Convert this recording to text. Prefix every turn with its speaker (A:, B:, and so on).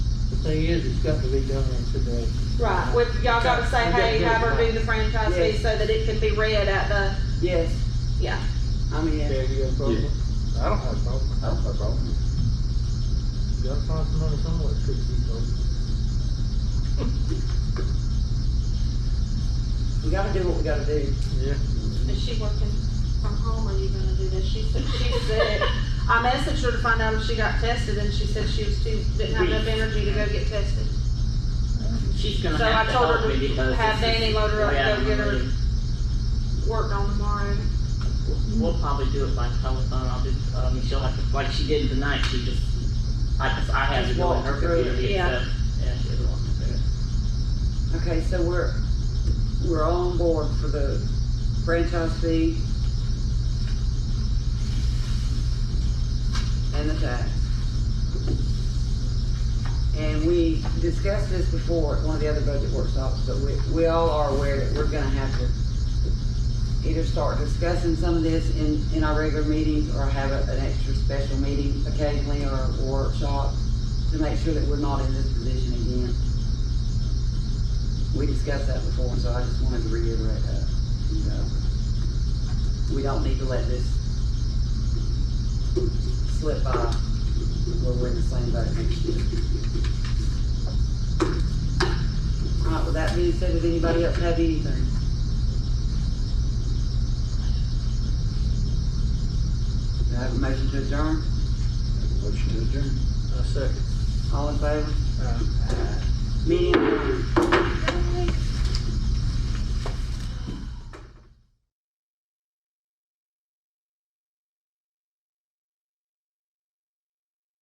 A: thing is, it's got to be done in today.
B: Right, with, y'all gotta say, hey, have her do the franchise fee so that it can be read at the,
C: Yes,
B: yeah.
C: I mean, yeah.
A: Okay, you got a problem? I don't have a problem.
D: I don't have a problem.
A: You gotta find some money somewhere, to keep going.
C: we gotta do what we gotta do.
A: Yeah.
B: Is she working from home or are you gonna do this? She said, she said, I messaged her to find out if she got tested and she said she was too, didn't have enough energy to go get tested.
E: She's gonna
B: So I
E: have to
B: told her
E: help me
B: to
E: because.
B: have
E: this is
B: Danny load her up,
E: way out
B: go
E: of
B: get
E: my
B: her.
E: league.
B: Worked on tomorrow.
E: We'll probably do it by telephone, I'll do, uh, Michelle, like, like she did tonight, she just, I just, I had to
C: Just
E: do it on her
C: walked through it.
E: computer,
B: Yeah.
E: yeah, so, yeah, she had to walk me through it.
C: Okay, so we're, we're all on board for the franchise fee. And the tax. And we discussed this before at one of the other budget workshops, but we, we all are aware that we're gonna have to either start discussing some of this in, in our regular meetings, or have a- an extra special meeting occasionally, or a workshop, to make sure that we're not in this position again. We discussed that before, so I just wanted to reiterate that, you know. We don't need to let this slip by where we're in the same boat next year. All right, with that being said, does anybody else have anything? Do I have a motion to adjourn?
D: Motion to adjourn.
A: I second.
C: All in favor?
A: Uh,
C: Meeting adjourned.